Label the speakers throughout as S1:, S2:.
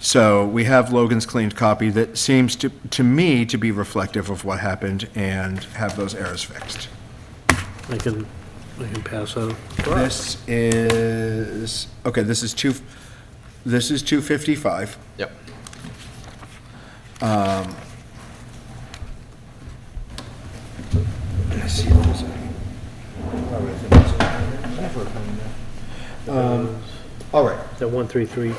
S1: So we have Logan's cleaned copy that seems to, to me to be reflective of what happened and have those errors fixed.
S2: I can, I can pass out.
S1: This is, okay, this is two, this is 255.
S3: Yep.
S1: Let's see if there's any- Oh, all right, if there's any- never been there. Um, All right,
S2: That 133,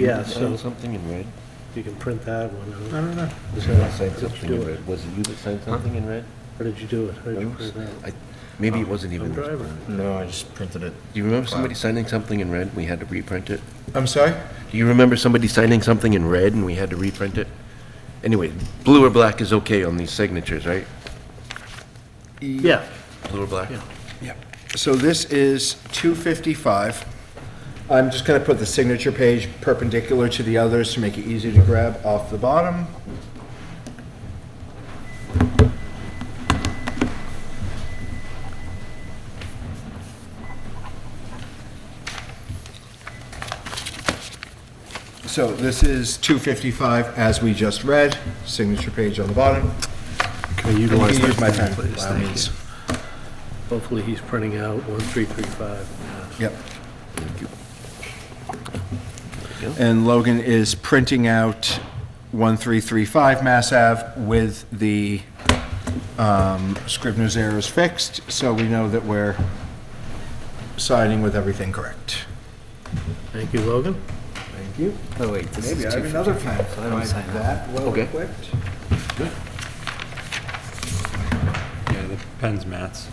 S2: yeah, so
S4: Signed something in red?
S2: you can print that one.
S1: I
S2: out.
S1: don't know.
S4: Was I signed
S2: Just
S4: something
S2: do
S4: in
S2: it.
S4: red? Was it you that signed something in red?
S2: How did you do it? How did you
S4: It was-
S2: print that?
S4: I- Maybe it wasn't
S2: I'm
S4: even. Do
S2: driving.
S5: No, I just printed it.
S4: you remember somebody signing something in red and we had to reprint it?
S1: I'm sorry?
S4: Do you remember somebody signing something in red and we had to reprint it? Anyway, blue or black is okay on these signatures, right?
S1: E
S2: Yeah,
S4: Blue or black?
S1: Yeah. So this is 255. I'm just going to put the signature page perpendicular to the others to make it easy to grab off the bottom. So this is 255 as we just read, signature page on the bottom.
S2: Can you
S1: And You
S2: utilize
S1: can
S2: that
S1: use my pen,
S2: please?
S1: by all
S2: Thank
S1: means.
S2: hopefully he's printing out 1335.
S1: Yep. And Logan is printing out 1335 Mass Ave with the um, Scrivener's errors fixed, so we know that we're siding with everything correct.
S2: Thank you, Logan.
S1: Thank you.
S5: Oh, wait, this is
S1: Maybe I have
S5: 255.
S1: another pen.
S5: I don't sign that.
S1: well
S4: Okay.
S1: equipped.
S6: Yeah, the pen's Matt's.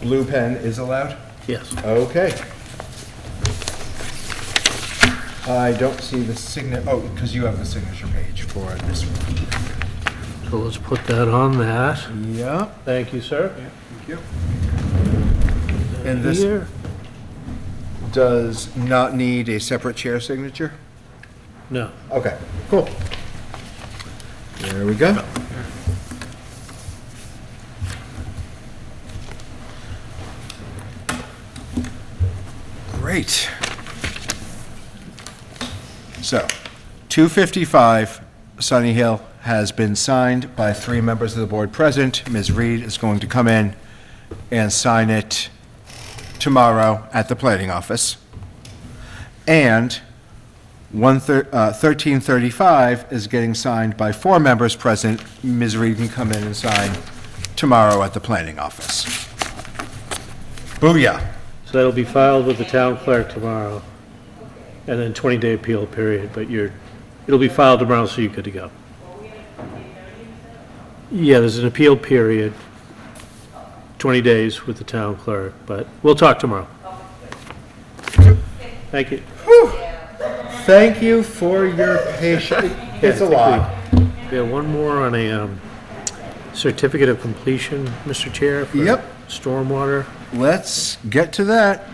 S1: Blue pen is allowed?
S2: Yes,
S1: Okay. I don't see the signature, oh, because you have the signature page for this one.
S2: so let's put that on that.
S1: Yep.
S2: Thank you, sir.
S1: And this
S2: Here?
S1: does not need a separate chair signature?
S2: No.
S1: Okay, cool. There we go. Great. So, 255 Sunny Hill has been signed by three members of the board present. Ms. Reed is going to come in and sign it tomorrow at the planning office. And one thir- uh, 1335 is getting signed by four members present. Ms. Reed can come in and sign tomorrow at the planning office. Booyah.
S2: So that'll be filed with the town clerk tomorrow, and then 20-day appeal period, but you're, it'll be filed tomorrow, so you're good to go. Yeah, there's an appeal period, 20 days with the town clerk, but we'll talk tomorrow. Thank you.
S1: Thank you for your patience. It's a lot.
S2: Yeah, one more on a um, certificate of completion, Mr. Chair. for
S1: Yep.
S2: Stormwater.
S1: Let's get to that.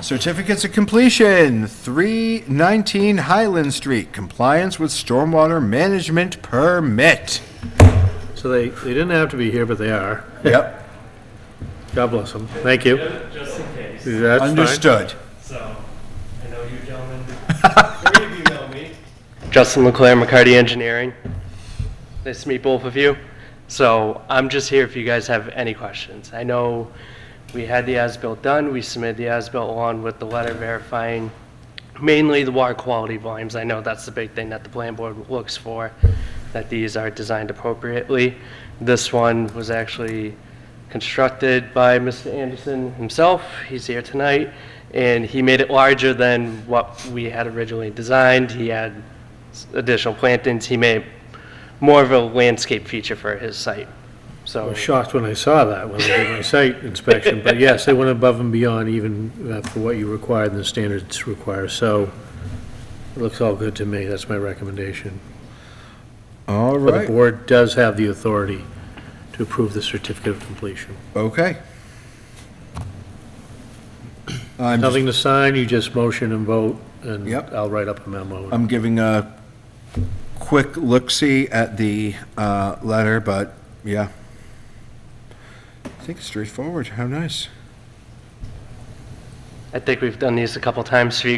S1: Certificates of completion, 319 Highland Street, compliance with stormwater management permit.
S2: So they, they didn't have to be here, but they are.
S1: Yep.
S2: God bless them. Thank you.
S7: Just in case.
S2: That's fine.
S1: Understood.
S7: So, I know you gentlemen, three of you know me. Justin Leclaire, McCarty Engineering. Nice to meet both of you. So, I'm just here if you guys have any questions. I know we had the as-built done, we submitted the as-built along with the letter verifying mainly the water quality volumes. I know that's the big thing that the plan board looks for, that these are designed appropriately. This one was actually constructed by Mr. Anderson himself. He's here tonight, and he made it larger than what we had originally designed. He had s- additional plantings. He made more of a landscape feature for his site.
S2: I
S7: So,
S2: was shocked when I saw that when I did my site inspection, but yes, they went above and beyond even uh, for what you required and the standards require, so it looks all good to me, that's my recommendation.
S1: All
S2: But the
S1: right,
S2: board does have the authority to approve the certificate of completion.
S1: okay. I'm, just-
S2: Nothing to sign, you just motion and vote, and
S1: Yep.
S2: I'll write up a memo.
S1: I'm giving a quick look-see at the uh, letter, but yeah. I think it's straightforward. How nice.
S7: I think we've done these a couple times for you